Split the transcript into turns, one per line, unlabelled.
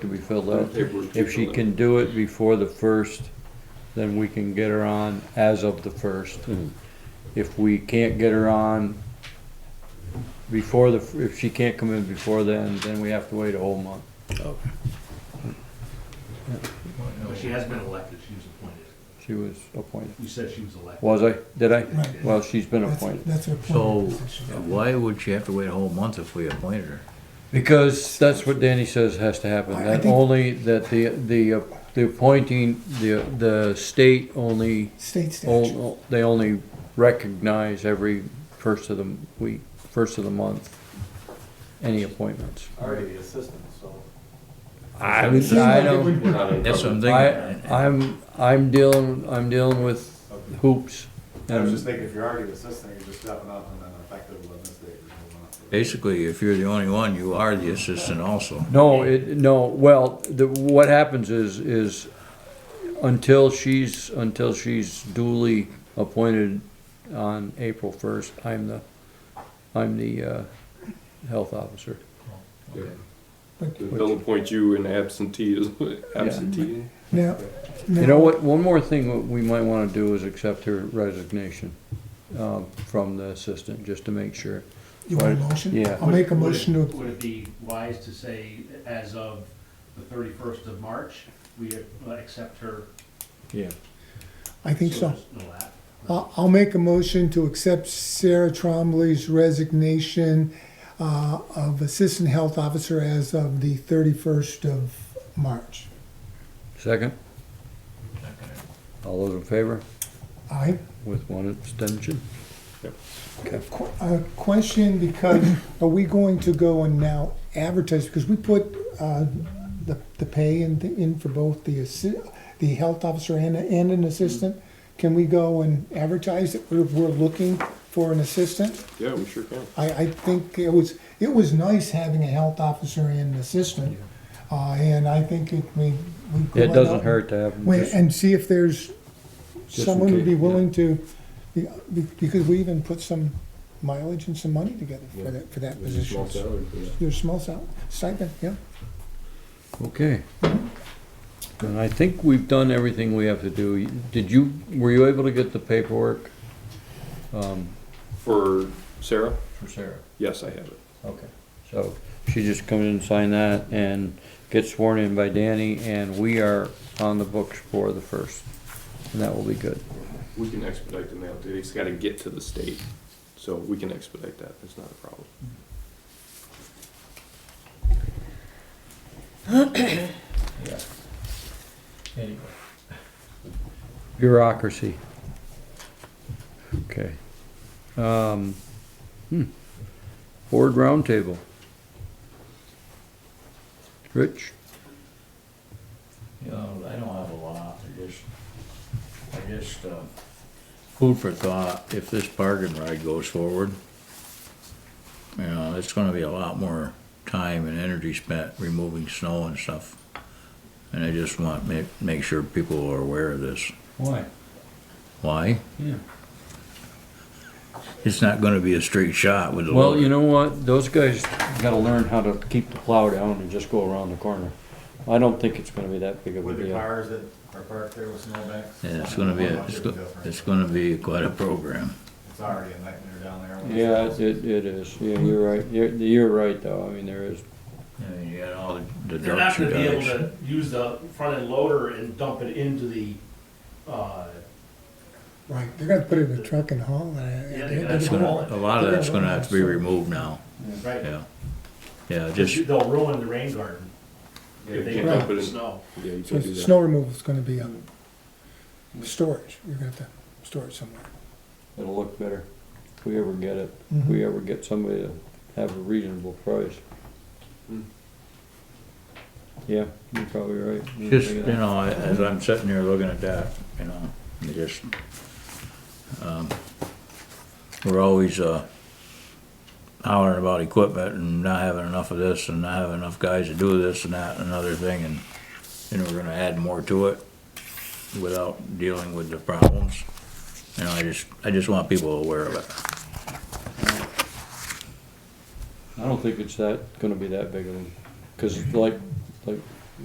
to be filled
That
out.
paperwork's to be
If she
filled out.
can do it before the first, then we can get her on as of the first. If we can't get her on before the, if she can't come in before then, then we have to wait a whole month.
But she has been elected, she was appointed.
She was appointed.
You said she was elected.
Was I? Did I?
Right.
Well, she's been
That's,
appointed.
that's her
So
point.
why would she have to wait a whole month if we appointed her?
Because that's what Danny says has to happen,
I- I
that
think-
only, that the, the, uh, the appointing, the, the state only,
State
ol-
statute.
ol- they only recognize every first of the week, first of the month, any appointments.
already the assistant, so.
I, I don't,
We're not in
That's what I'm
I,
thinking.
I'm, I'm dealing, I'm dealing with hoops.
I was just
and-
thinking, if you're already the assistant, you're just stepping up and then effective eleventh day. you're moving up.
Basically, if you're the only one, you are the assistant also.
No, it, no, well, the, what happens is, is until she's, until she's duly appointed on April first, I'm the, I'm the, uh, health officer.
They'll appoint you in absentee, as- absentee.
Now,
You know
now,
what, one more thing what we might wanna do is accept her resignation, um, from the assistant, just to make sure.
you want a motion?
Yeah.
I'll make a
Would it-
motion to,
Would it be wise to say, as of the thirty-first of March, we uh, accept her?
Yeah.
I think so.
there's No lapse?
I'll, I'll make a motion to accept Sarah Trombley's resignation uh, of Assistant Health Officer as of the thirty-first of March.
Second? All those in favor,
Aye?
with one abstention?
Qu- A question, because are we going to go and now advertise, because we put uh, the, the pay in, in for both the, assi- the health officer and, and an assistant? Can we go and advertise that we're, we're looking for an assistant?
Yeah, we sure can.
I, I think it was, it was nice having a health officer and an assistant. uh, And I think it, we. we go
It
out
doesn't hurt to have. them
Wait,
just-
and see if there's
in
someone who'd be
case, yeah.
willing to, be- be- because we even put some mileage and some money together for that, for that
There's a small
position.
salary for that.
There's small sal- stipend, yeah.
Okay. And I think we've done everything we have to do. Did you, were you able to get the paperwork? um,
For Sarah?
For Sarah.
Yes, I have it.
Okay. So she just comes in and sign that and gets sworn in by Danny and we are on the books for the first. And that will be good.
We can expedite the mail, dude. It's gotta get to the state, so we can expedite that. It's not a problem.
Bureaucracy. Okay. Um, hmm. Board roundtable. Rich?
You know, I don't have a lot, I just, I just, uh, food for thought, if this bargain ride goes forward, you know, it's gonna be a lot more time and energy spent removing snow and stuff. And I just want, make, make sure people are aware of this.
Why?
Why?
Yeah.
It's not gonna be a straight shot with the
Well, you
loader.
know what, those guys gotta learn how to keep the plow down and just go around the corner. I don't think it's gonna be that big of a
With the
deal.
cars that are parked there with snowbanks.
Yeah, it's gonna be, a- it's, go- it's gonna be quite a program.
It's already a nightmare down there. when
Yeah,
it's-
it, it it is, yeah, you're right, you're, you're right though, I mean, there is,
I mean, you got all the
They're not
ducks
gonna
and
be able
guys.
to use the front end loader and dump it into the, uh,
Right, they're gonna put it in a truck and haul
Yeah, they
it.
gotta haul it.
A lot of that's gonna have to be removed now,
right?
yeah. Yeah, just,
They'll ruin the rain garden
Yeah, you
if they
can't
dump
dump it
the
in-
snow.
Yeah, you
So
can't do that.
Snow removal's gonna be on
Mm.
storage, you're gonna have to store it somewhere.
it'll look better, if we ever get it, if
Mm-hmm.
we ever get somebody to have a reasonable price.
Hmm.
Yeah, you're probably right. I didn't
just,
think of
you
that.
know, as I'm sitting here looking at that, you know, it just, um, we're always, uh, hollering about equipment and not having enough of this and not having enough guys to do this and that and another thing and, you know, we're gonna add more to it without dealing with the problems. You know, I just, I just want people aware of it.
I don't think it's that, gonna be that big of a, cause like, like